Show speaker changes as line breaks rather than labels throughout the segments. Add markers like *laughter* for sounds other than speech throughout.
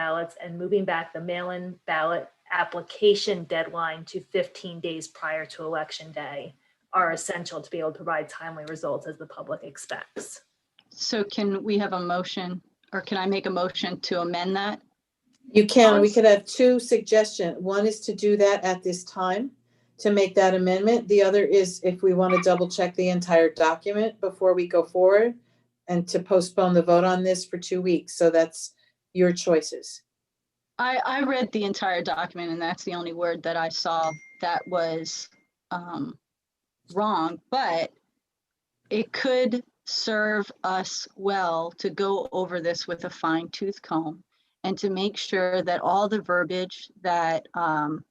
ballots and moving back the mail-in ballot application deadline to 15 days prior to election day are essential to be able to provide timely results as the public expects.
So can we have a motion, or can I make a motion to amend that?
You can, we
Cons-
could have two suggestions. One is to do that at this time, to make that amendment. The other is if we want to double check the entire document before we go forward and to postpone the vote on this for two weeks. So that's your choices.
I, I read the entire document and that's the only word that I saw that was um, wrong, but it could serve us well to go over this with a fine tooth comb and to make sure that all the verbiage that um,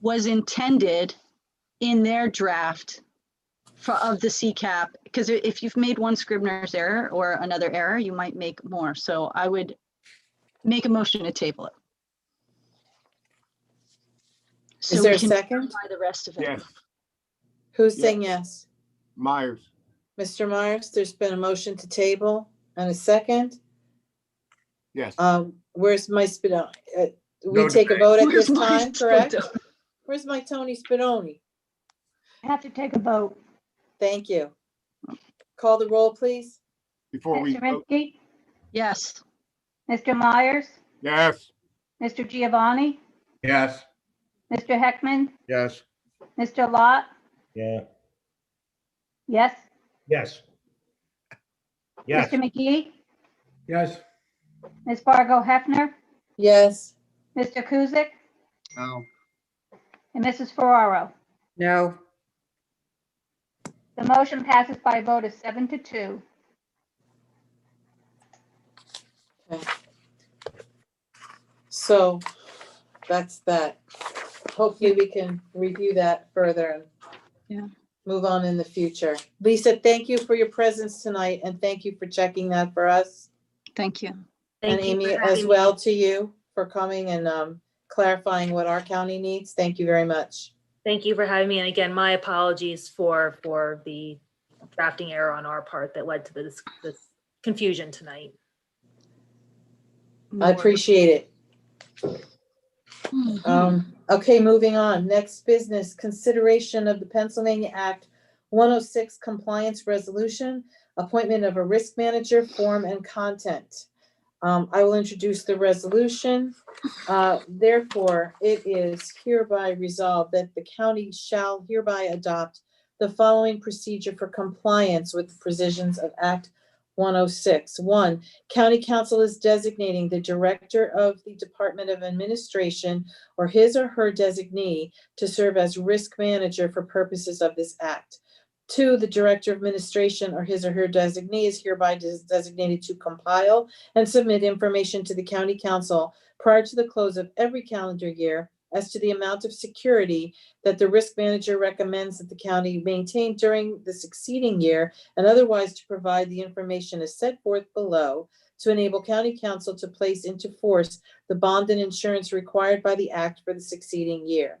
was intended in their draft for, of the CCAP, because if you've made one Scribner's error or another error, you might make more. So I would make a motion to table it. So
Is there
we
a
can
second?
clarify The rest of it.
Yes,
Who's
Yeah.
saying yes?
Myers,
Mr. Myers, there's been a motion to table and a second.
yes.
Um, where's my Spino? uh, We
No
take a
debate.
vote at
Where's
this *laughs*
my *laughs*
time, correct?
photo?
Where's my Tony Spinoni?
Have to take a vote.
Thank you. Call the roll, please.
Before we,
Mr.
vote.
Rinsky,
Yes,
Mr. Myers,
yes,
Mr. Giovanni,
Yes.
Mr. Heckman,
Yes.
Mr. Lot,
Yeah.
yes?
Yes.
Mr. McGee,
Yes.
Ms. Fargo Hefner,
Yes.
Mr. Kuzic,
No.
and Mrs. Ferraro.
No,
The motion passes by a vote of seven to two.
So that's that. Hopefully, we can review that further. and
Yeah.
Move on in the future. Lisa, thank you for your presence tonight and thank you for checking that for us.
thank you.
And
Thank you
Amy
for
as
having me.
well to you for coming and um, clarifying what our county needs. Thank you very much.
Thank you for having me. And again, my apologies for, for the drafting error on our part that led to this, this confusion tonight.
I
More.
appreciate it.
Mhm.
Um, okay, moving on. Next business, consideration of the Pennsylvania Act one oh six compliance resolution, appointment of a risk manager, form and content. Um, I will introduce the resolution. Uh, therefore, it is hereby resolved that the county shall hereby adopt the following procedure for compliance with the provisions of Act one oh six. One, county council is designating the director of the Department of Administration or his or her designee to serve as risk manager for purposes of this act. Two, the director of administration or his or her designee is hereby des- designated to compile and submit information to the county council prior to the close of every calendar year as to the amount of security that the risk manager recommends that the county maintain during the succeeding year and otherwise to provide the information as set forth below to enable county council to place into force the bond and insurance required by the act for the succeeding year.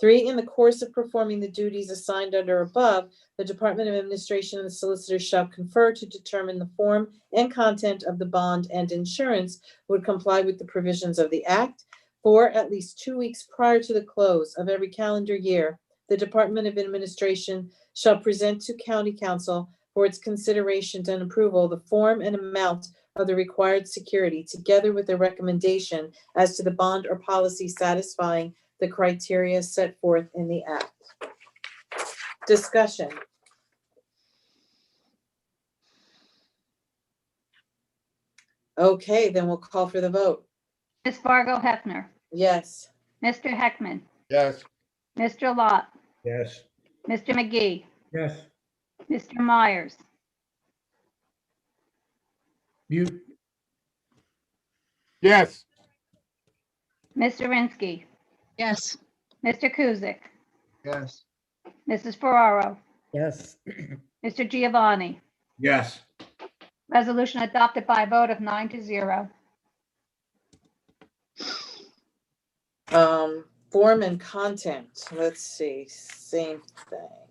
Three, in the course of performing the duties assigned under above, the Department of Administration and the Solicitor shall confer to determine the form and content of the bond and insurance would comply with the provisions of the act. Four, at least two weeks prior to the close of every calendar year, the Department of Administration shall present to County Council for its consideration and approval the form and amount of the required security, together with a recommendation as to the bond or policy satisfying the criteria set forth in the act. Discussion. Okay, then we'll call for the vote.
Ms. Fargo Hefner,
Yes.
Mr. Heckman,
Yes.
Mr. Lot,
Yes.
Mr. McGee,
Yes.
Mr. Myers,
Mute.
yes,
Mr. Rinsky,
Yes,
Mr. Kuzic,
Yes.
Mrs. Ferraro,
yes,
Mr. Giovanni.
Yes.
Resolution adopted by a vote of nine to zero.
Um, form and content, let's see, same thing.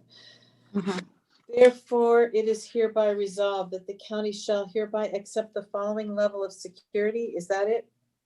Mhm.
Therefore, it is hereby resolved that the county shall hereby accept the following level of security. Is that it?